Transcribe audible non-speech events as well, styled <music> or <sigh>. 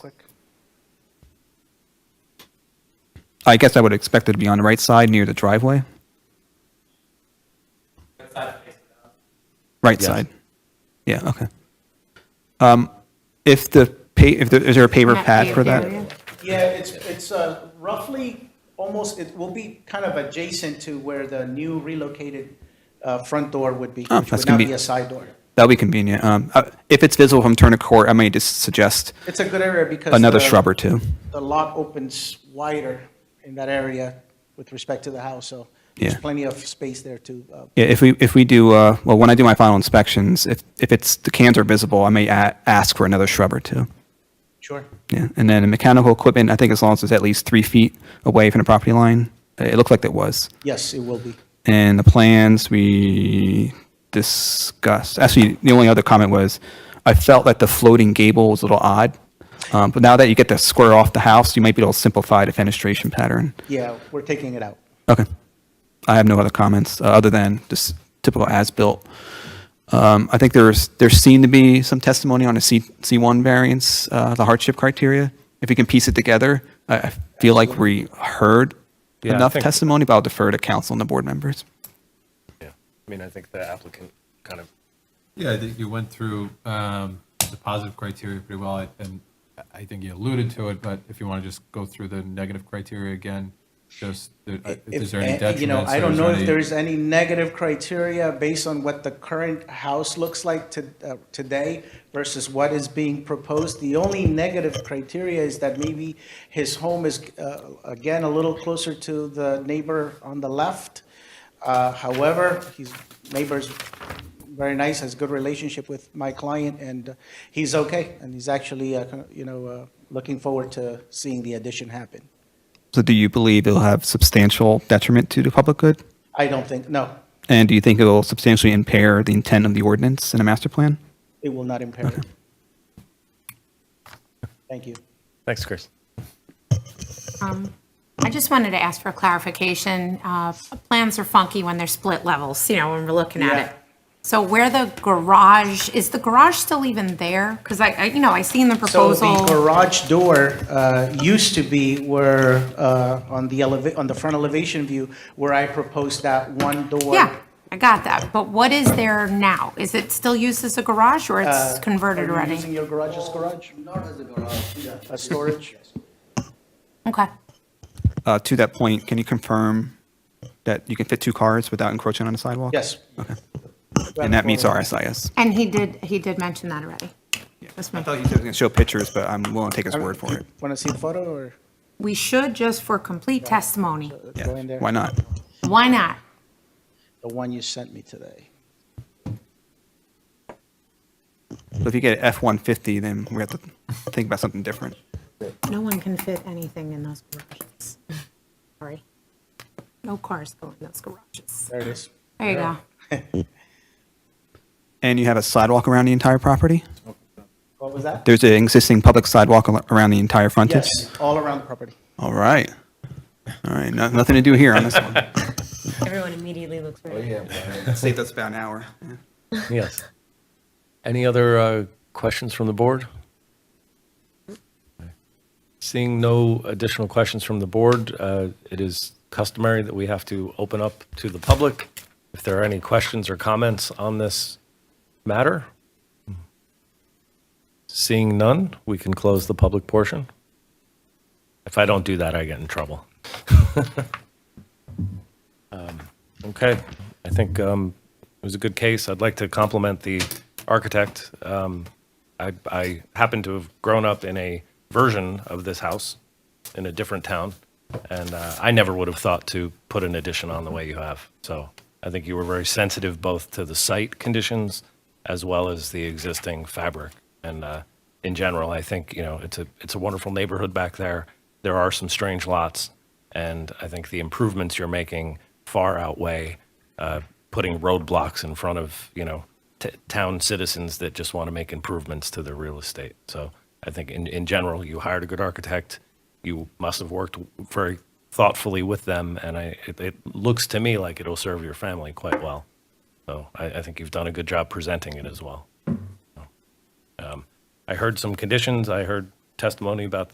Click. I guess I would expect it to be on the right side near the driveway. Right Yes. side. Yeah, okay. Um, if the, pa- if there, is there a paper Not pad for paved that? area. Yeah, it's, it's uh, roughly, almost, it will be kind of adjacent to where the new relocated uh, front door would be, Oh, which that's would now be a convenient. side door. That'd be convenient. Um, uh, if it's visible from Turner Court, I may just suggest It's a good area because. another the- shrub or two. The lot opens wider in that area with respect to the house, so there's Yeah. plenty of space there to, uh, Yeah, if we, if we do, uh, well, when I do my final inspections, if, if it's, the cans are visible, I may a- ask for another shrub or two. sure. Yeah, and then mechanical equipment, I think as long as it's at least three feet away from the property line, Uh, it looked like it was. Yes, it will be. And the plans we discussed, actually, the only other comment was, I felt that the floating gable was a little odd. Um, But now that you get to square off the house, you might be able to simplify the fenestration pattern. Yeah, we're taking it out. Okay. I have no other comments, uh, other than just typical as-built. Um, I think there's, there seemed to be some testimony on a C, C1 variance, uh, the hardship criteria. If we can piece it together, I, I feel like we heard Yeah, I enough think- testimony, but I'll defer to council and the board members. Yeah, I mean, I think the applicant kind of, Yeah, I think you went through um, the positive criteria pretty well, I- and I think you alluded to it, but if you want to just go through the negative criteria again, just, there- If- is there any eh, detriments? You know, I don't is know if any- there's any negative criteria based on what the current house looks like to, uh, today versus what is being proposed. The only negative criteria is that maybe his home is, uh, again, a little closer to the neighbor on the left. Uh, However, his neighbor's very nice, has good relationship with my client, and uh, he's okay. And he's actually, uh, kind of, you know, uh, looking forward to seeing the addition happen. So do you believe it'll have substantial detriment to the public good? I don't think, no, And do you think it'll substantially impair the intent of the ordinance and a master plan? It will not impair it. Thank you. thanks, Chris. I just wanted to ask for clarification. Uh, Plans are funky when they're split levels, you know, when we're looking Yeah. at it. So where the garage, is the garage still even there? Because I, I- you know, I seen the So the proposal. garage door uh, used to be where, uh, on the eleva, on the front elevation view, where I proposed that one door. Yeah, I got that. But what is there now? Is it still used as a garage or it's Uh, Are converted you using already? your garage as garage, Not as a garage, yeah. a <laughs> storage? Okay. Uh, to that point, can you confirm that you can fit two cars without encroaching on the sidewalk? Yes. And that meets our SIS? And he did, he did mention that already. That's my- I thought he said he was going to show pictures, but I'm willing to take his word for it. Want to see the photo or uh, We should, just for complete testimony, go in Yeah, there? why not? why not? The one you sent me today. But if you get F-150, then we have to think about something different. No one can fit anything in those garages. <laughs> Sorry. No cars go in those garages. There it is. There you go. And you have a sidewalk around the entire property? What was that? There's an existing public sidewalk al- around the entire frontage? Yes, all around the property. All right. All right, no- nothing to do here on this one. Everyone immediately looks very. Saved us about an hour. Yes. Any other uh, questions from the board? Seeing no additional questions from the board, uh, it is customary that we have to open up to the public if there are any questions or comments on this matter. Seeing none, we can close the public portion. If I don't do that, I get in trouble. Okay, I think um, it was a good case. I'd like to compliment the architect. Um, I, I happen to have grown up in a version of this house in a different town, and uh, I never would have thought to put an addition on the way you have. So I think you were very sensitive both to the site conditions as well as the existing fabric. And uh, in general, I think you know it's a it's a wonderful neighborhood back there. There are some strange lots, and I think the improvements you're making far outweigh uh, putting roadblocks in front of you know t- town citizens that just want to make improvements to their real estate. So I think in, in general, you hired a good architect. You must have worked very thoughtfully with them, and I it, it looks to me like it'll serve your family quite well. So I, I think you've done a good um, job presenting it as well. I heard some conditions. I heard testimony about